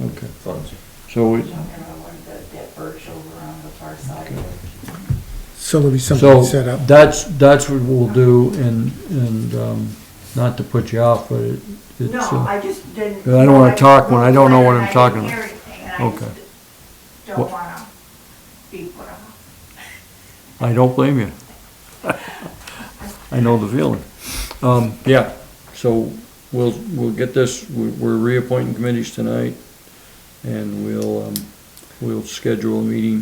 Okay, funds. so We're we, talking about one of the, that birch over on the far side. Okay. So there'll be so something set up. that's, that's what we'll do and, and, um, not to put you off, but it, it's, No, uh, I just didn't. 'Cause I don't wanna talk when I don't know what I'm I didn't talking about. hear anything, and I just Okay. Don't What- wanna be put off. I don't blame you. I know the feeling. Um, yeah, so we'll, we'll get this, we're we're reappointing committees tonight and we'll, um, we'll schedule a meeting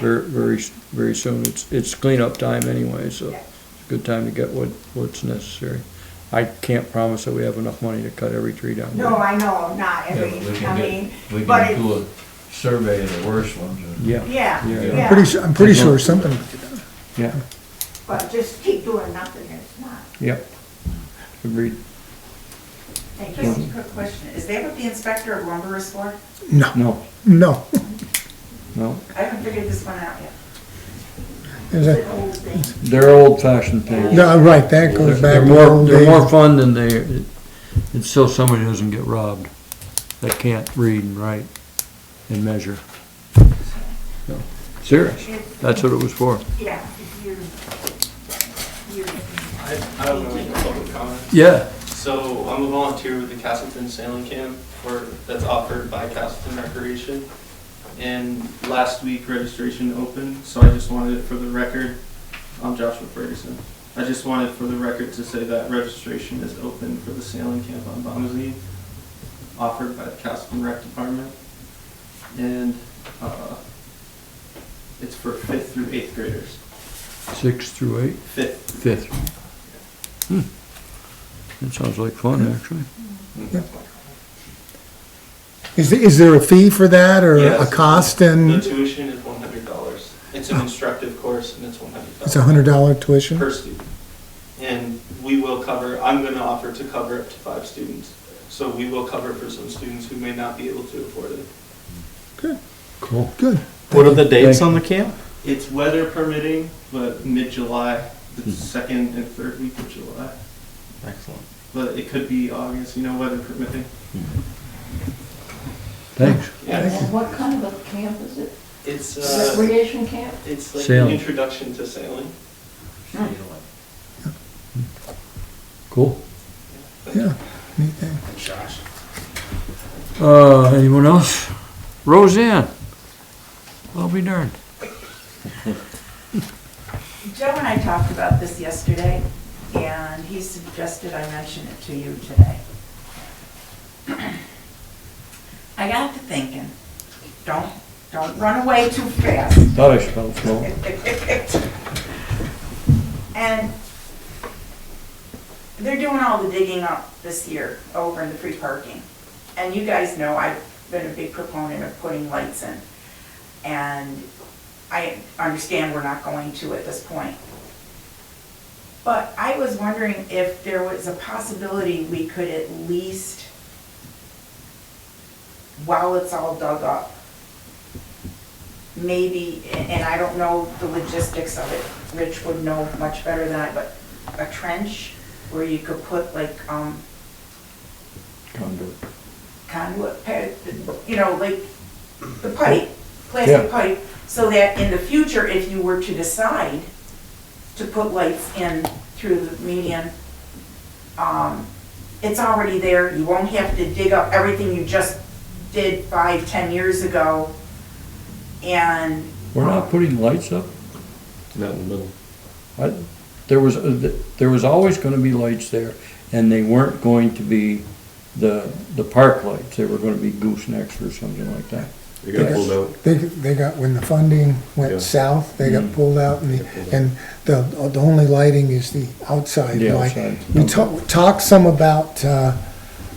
very, very, very soon. It's, it's cleanup time anyway, so Yeah. it's a good time to get what, what's necessary. I can't promise that we have enough money to cut every tree down. No, I know, not Yeah, but we every, I can mean, get, we but it, can do a survey of the worst ones. and- Yeah. yeah, Yeah. I'm yeah, pretty, su- I'm pretty sure something, Yeah, but just keep doing nothing, it's not, yep. Agreed. thank Just you. a quick question, is that what the inspector of lumber is for? no, No, no. no. I haven't figured this one out yet. Is It's that- an old thing. They're old fashioned things. No, right, that goes back They're to the more, old they're more days. fun than they, it- it's still somebody who doesn't get robbed, that can't read and write and measure. No. Serious, It's- that's what it was for. Yeah, if you're, you're, I, I don't know, any public comment. Yeah, So I'm a volunteer with the Castleton Sailing Camp for, that's offered by Castleton Recreation. And last week registration opened, so I just wanted it for the record. I'm Joshua Ferguson. I just wanted for the record to say that registration is open for the sailing camp on Bombazine, offered by the Castleton Rec Department. And, uh, it's for fifth through eighth graders. six through eight, Fifth fifth. Hmm. That sounds like fun, actually. Is, is there a fee for that or a Yes. cost The and tuition is one hundred dollars. It's an instructive course and it's one hundred dollars. it's a hundred dollar tuition? Per student. And we will cover, I'm gonna offer to cover up to five students. So we will cover for some students who may not be able to afford it. Cool. Good. What are the dates Thank on the camp? It's weather permitting, but mid-July, the Hmm. second and third week of July. Excellent. But it could be August, you know, weather permitting. Thanks. Yeah, and what kind of a camp is it? it's, uh, Recreation camp? it's like an Sailing. introduction to sailing. Cool. Yeah, neat thing. Uh, anyone else? Roseanne? I'll be darned. Joe and I talked about this yesterday, and he suggested I mention it to you today. I got to thinking, don't, don't run away too fast. Thought I spelled slow. And they're doing all the digging up this year over in the free parking. And you guys know I've been a big proponent of putting lights in. And I understand we're not going to at this point. But I was wondering if there was a possibility we could at least, while it's all dug up, maybe, and I don't know the logistics of it, Rich would know much better than I, but a trench where you could put like, um, Conduit. conduit, pa- you know, like the pipe, plastic pipe, so that in the future, if you were to decide to put lights in through the median, um, it's already there, you won't have to dig up everything you just did five, ten years ago, and. We're um, not putting lights up? Not in the middle. I- There was, uh, there was always gonna be lights there, and they weren't going to be the, the park lights, they were gonna be goosenecks or something like that. They got pulled out. They, they got, when the funding Yeah. went south, they got Mm-hmm. Mhm. pulled out and, the- Got pulled out. and the, the only lighting is the outside The light. outside, We okay. talked, talked some about, uh,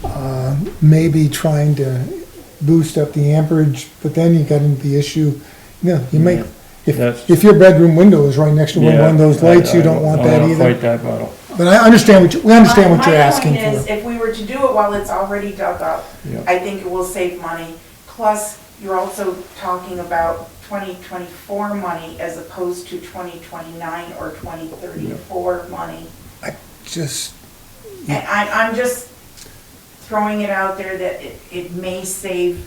uh, maybe trying to boost up the amperage, but then you got into the issue, you know, you make, if, That's- if your bedroom window is right next to one of those Yeah, I- lights, you I don't want that I don't either. fight that battle, But I understand what, you we understand My- what you're asking My point is, for. if we were to do it while it's already dug up, yeah. I think it will save money. Plus, you're also talking about 2024 money as opposed to 2029 or 2034 money. Just, And I, I'm just throwing it out there that it, it may save